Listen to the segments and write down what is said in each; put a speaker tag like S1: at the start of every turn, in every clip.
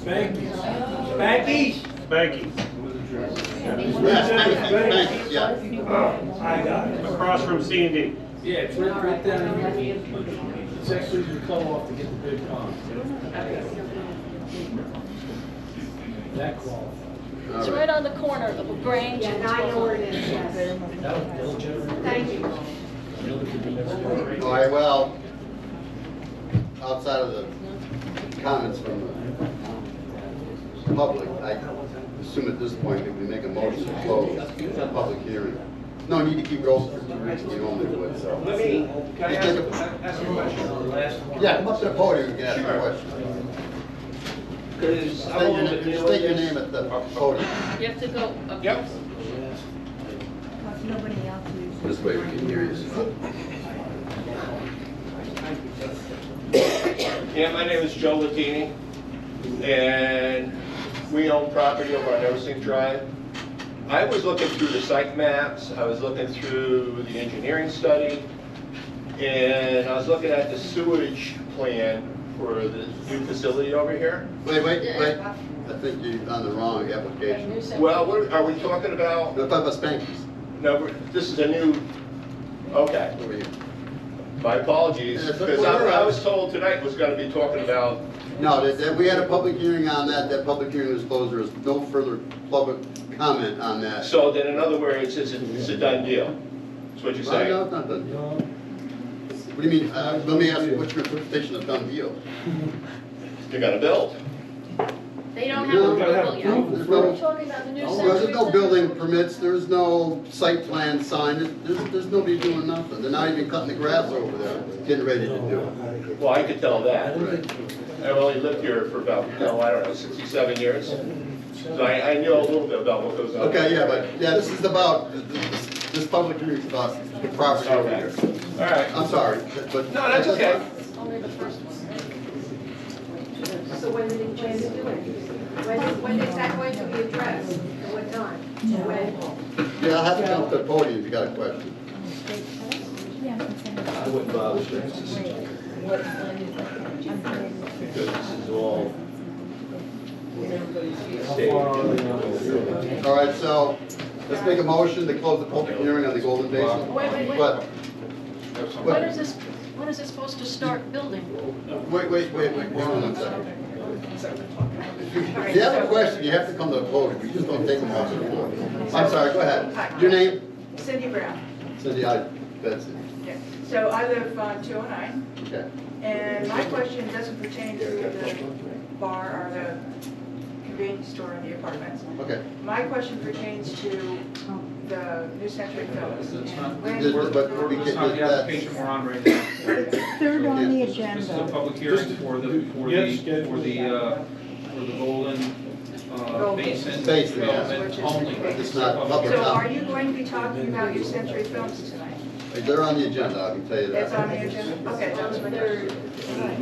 S1: Spankies. Spankies?
S2: Spanky,
S3: Yeah, thank you, thank you, yeah.
S1: I got it.
S2: across from C and D.
S4: Yeah, it's right, right down here. It's actually the call-off to get the bid on. That qualifies.
S5: It's right on the corner of a branch.
S6: Yeah, now I know where it is, yes.
S4: That will generate.
S6: Thank you.
S3: All right, well, outside of the comments from the public, I assume at this point that we make a motion to close the public hearing. No need to keep it open for two weeks, we normally would, so.
S1: Let me, can I ask, ask a question on the last one?
S3: Yeah, come up to the podium and ask a question.
S1: Because I
S3: State your
S1: want to
S3: name-
S1: deal
S3: State your
S1: with
S3: name
S1: this.
S3: at the podium.
S5: You have to go up.
S1: Yep.
S3: This way we can hear you.
S1: Yeah, my name is Joe Latini, and we own property over on Eversink Drive. I was looking through the site maps, I was looking through the engineering study, and I was looking at the sewage plan for the new facility over here.
S3: Wait, wait, wait, I think you're on the wrong application.
S1: Well, we're- are we talking about,
S3: We're talking about Spankies.
S1: no, we're- this is a new, okay,
S3: Over here.
S1: my apologies, because I I was told tonight was going to be talking about
S3: No, that, that, we had a public hearing on that, that public hearing was closed, there was no further public comment on that.
S1: So then, in other words, it's, it's a done deal, is what you're
S3: Well,
S1: saying?
S3: no, it's not done. What do you mean, uh, let me ask you, what's your interpretation of done deal?
S1: You're gonna build.
S5: They don't have
S3: No,
S5: approval yet.
S3: There's
S5: We're
S3: no,
S5: talking about the new
S3: no,
S5: century.
S3: there's no
S5: Center.
S3: building permits, there's no site plan signed, there's, there's nobody doing nothing, they're not even cutting the grass over there, getting ready to do it.
S1: Well, I could tell that. I've only lived here for about, no, I don't know, sixty-seven years. So I, I know a little bit about what goes on.
S3: Okay, yeah, but, yeah, this is about, this, this public hearing is about the property over here.
S1: All right.
S3: I'm sorry, but.
S1: No, that's okay.
S5: Only the first one.
S6: So when did it plan to do it? When, when is that going to be addressed? At what time? When?
S3: Yeah, I'll have to come to the podium if you got a question.
S1: I wouldn't bother with because this is all.
S3: All right, so let's make a motion to close the public hearing on the Golden Basin.
S5: Wait, wait, wait.
S3: But,
S5: When is this, when is it supposed to start building?
S3: wait, wait, wait, wait, hold on one second. If you have a question, you have to come to the podium, we just don't take them off the floor. I'm sorry, go ahead. Your name?
S7: Cindy Brown.
S3: Cindy, I, that's it.
S7: So I live uh, on 209,
S3: Okay.
S7: and my question doesn't pertain to the bar or the convenience store in the apartments.
S3: Okay.
S7: My question pertains to the New Century Villas. and when-
S3: Just- But we
S8: It's
S3: can,
S8: not the
S3: that's,
S8: application we're on right now.
S9: Third on the
S8: This is a
S9: agenda.
S8: public hearing for the, for
S4: Yes,
S8: the, for the, uh, for the Golden uh, Basin
S3: Basin, yeah.
S8: development only.
S3: It's not
S8: Public
S3: public.
S8: hearing.
S7: So are you going to be talking about New Century Films tonight?
S3: they're on the agenda, I can tell you
S7: That's on
S3: that.
S7: the agenda? Okay, that was my
S5: They're-
S7: question.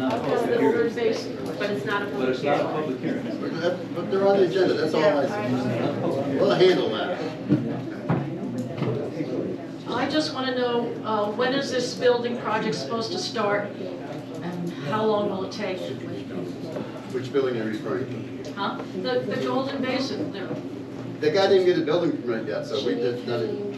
S5: Up on the third base, but it's not a
S8: But
S5: public
S8: it's not a
S5: hearing.
S8: public hearing.
S3: But that- but they're on the agenda, that's all I said. We'll handle that.
S5: I just want to know, uh, when is this building project supposed to start? And how long will it take?
S3: Which building are you referring to?
S5: Huh? The, the Golden Basin, there,
S3: The guy didn't get a building permit yet, so we did, nothing.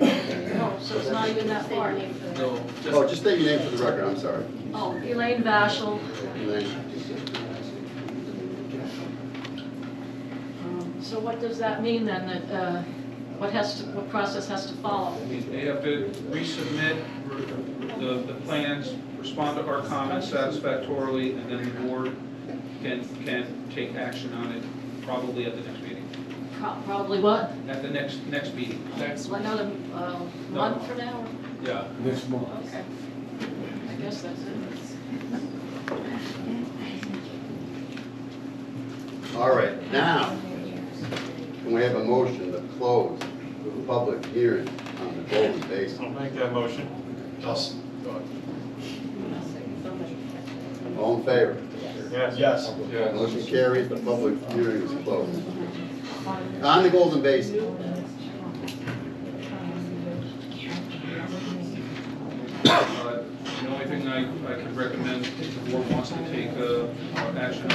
S5: oh, so it's not even that far.
S8: No, just
S3: Oh, just state your name for the record, I'm sorry.
S5: Oh, Elaine Vashel,
S3: Your name.
S5: Um, So what does that mean then, that, uh, what has to, what process has to follow?
S8: they have to resubmit re- the, the plans, respond to our comments satisfactorily, and then the board can, can take action on it probably at the next meeting,
S5: Pro- Probably what?
S8: at the next, next meeting.
S5: So Another uh, month from now?
S8: Yeah.
S4: Next month.
S5: Okay. I guess that's it.
S3: All right, now, can we have a motion to close the public hearing on the Golden Basin?
S2: I'll make that motion.
S3: All in favor?
S2: Yes. Yes.
S3: Motion carries, the public hearing is closed. On the Golden Basin,
S8: Uh, The only thing I, I could recommend, if the board wants to take uh, action on